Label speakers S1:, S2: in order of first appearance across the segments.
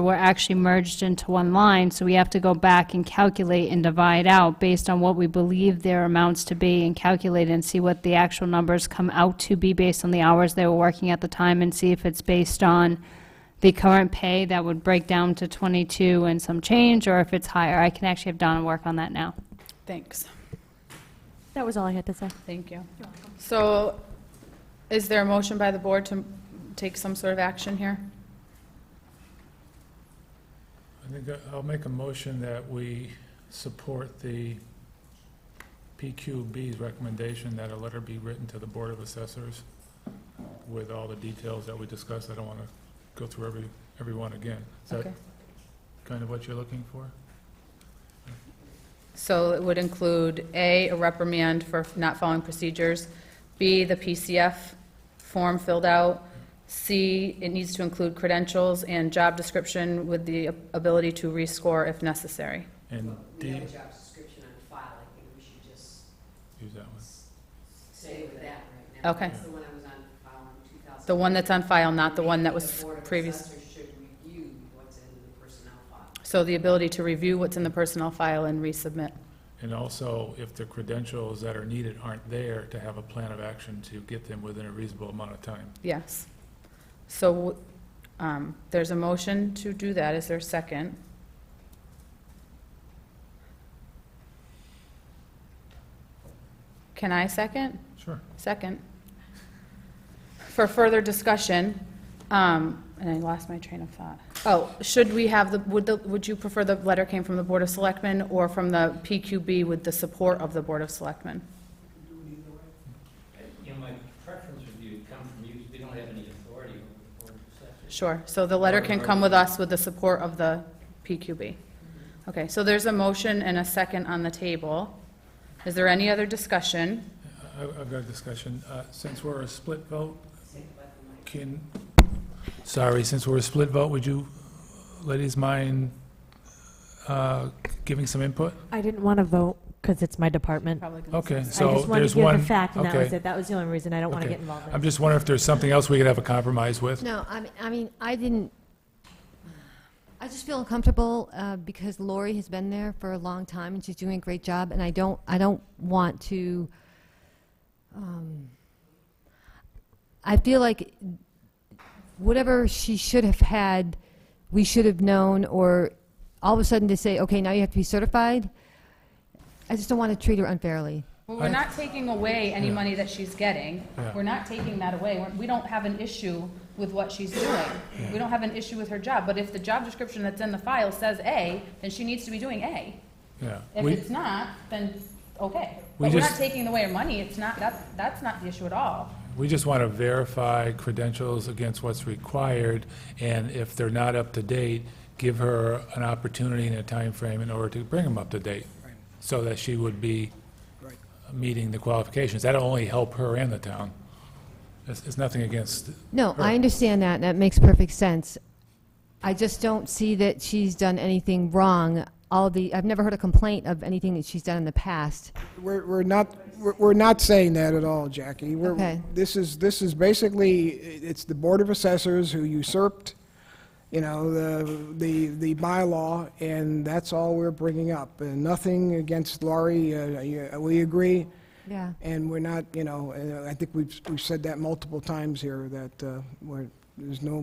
S1: were actually merged into one line, so we have to go back and calculate and divide out based on what we believe their amounts to be and calculate and see what the actual numbers come out to be based on the hours they were working at the time and see if it's based on the current pay that would break down to 22 and some change, or if it's higher. I can actually have Donna work on that now.
S2: Thanks.
S3: That was all I had to say.
S2: Thank you. So is there a motion by the board to take some sort of action here?
S4: I think I- I'll make a motion that we support the PQB's recommendation that a letter be written to the Board of Assessors with all the details that we discussed. I don't want to go through every, every one again. Is that
S2: Okay.
S4: kind of what you're looking for?
S2: So it would include, A, a reprimand for not following procedures, B, the PCF form filled out, C, it needs to include credentials and job description with the ability to rescore if necessary.
S4: And
S5: We
S4: D,
S5: have a job description on file, I think we should just
S4: use that one.
S5: s- stay with that right now.
S2: Okay.
S5: That's the one I was on file in 2000.
S2: The one that's on file, not the one that
S5: The
S2: was
S5: Board of
S2: previous.
S5: Assessors should review what's in the personnel file.
S2: So the ability to review what's in the personnel file and resubmit.
S4: And also, if the credentials that are needed aren't there, to have a plan of action to get them within a reasonable amount of time.
S2: Yes. So um, there's a motion to do that. Is there a second? Can I second?
S4: Sure.
S2: Second. For further discussion, um, and I lost my train of thought. Oh, should we have the, would the, would you prefer the letter came from the Board of Selectmen or from the PQB with the support of the Board of Selectmen?
S6: You know, my preference would be to come from you, 'cause we don't have any authority over the board of assessors.
S2: Sure, so the letter can come with us with the support of the PQB. Okay, so there's a motion and a second on the table. Is there any other discussion?
S4: I- I've got a discussion. Uh, Since we're a split vote, can, sorry, since we're a split vote, would you ladies mind uh, giving some input?
S3: I didn't want to vote because it's my department.
S2: Probably gonna-
S4: Okay,
S3: I
S4: so
S3: just wanted
S4: there's
S3: to give
S4: one.
S3: the fact, and that was
S4: okay.
S3: it. That was the only reason. I don't want to
S4: Okay.
S3: get involved in
S4: I'm
S3: it.
S4: just wondering if there's something else we could have a compromise with?
S7: No, I mean, I mean, I didn't, I just feel uncomfortable uh, because Lori has been there for a long time and she's doing a great job, and I don't, I don't want to, um, I feel like whatever she should have had, we should have known, or all of a sudden to say, okay, now you have to be certified, I just don't want to treat her unfairly.
S2: Well, we're not taking away any money that she's getting.
S4: Yeah.
S2: We're not taking that away. We're- We don't have an issue with what she's doing. We don't have an issue with her job, but if the job description that's in the file says A, then she needs to be doing A.
S4: Yeah.
S2: If
S4: We-
S2: it's not, then, okay.
S4: We
S2: But we're not
S4: just-
S2: taking away her money. It's not, that's, that's not the issue at all.
S4: We just want to verify credentials against what's required, and if they're not up to date, give her an opportunity and a time frame in order to bring them up to date, so that she would be meeting the qualifications. That'll only help her and the town. It's, it's nothing against,
S7: No,
S4: Right.
S7: I understand that, and that makes perfect sense. I just don't see that she's done anything wrong. All the, I've never heard a complaint of anything that she's done in the past.
S8: We're, we're not, we're, we're not saying that at all, Jackie. We're-
S7: Okay.
S8: This is, this is basically, it's the Board of Assessors who usurped, you know, the, the, the bylaw, and that's all we're bringing up. And nothing against Laurie, uh, yeah, we agree,
S7: Yeah.
S8: and we're not, you know, and I think we've, we've said that multiple times here, that, uh, we're, there's no,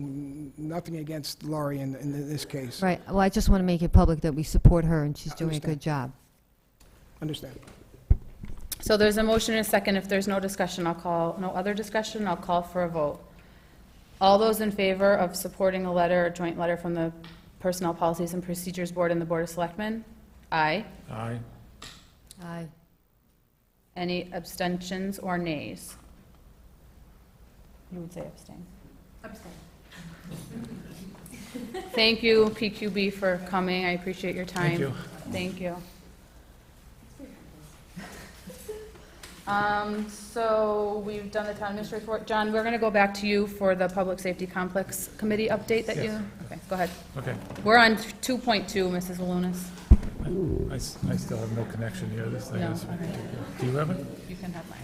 S8: nothing against Laurie in, in this case.
S7: Right, well, I just want to make it public that we support her, and she's
S8: I
S7: doing a good job.
S8: Understand.
S2: So there's a motion and a second. If there's no discussion, I'll call, no other discussion, I'll call for a vote. All those in favor of supporting a letter, a joint letter from the Personnel Policies and Procedures Board and the Board of Selectmen? Aye.
S4: aye,
S7: Aye.
S2: Any abstentions or nays? You would say abstain. Abstain. Thank you, PQB, for coming. I appreciate your time.
S4: Thank you.
S2: Thank you. Um, so we've done the town administrator's report. John, we're gonna go back to you for the Public Safety Complex Committee update that you,
S4: Yes.
S2: okay, go ahead.
S4: okay.
S2: We're on two point two, Mrs. Lunas.
S4: I, s- I still have no connection here, this thing
S2: No,
S4: is,
S2: okay.
S4: do you have it?
S2: You can have mine.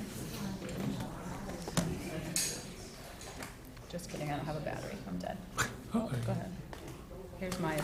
S2: Just kidding, I don't have a battery, I'm dead.
S4: Oh, there you
S2: Go
S4: go.
S2: ahead. here's my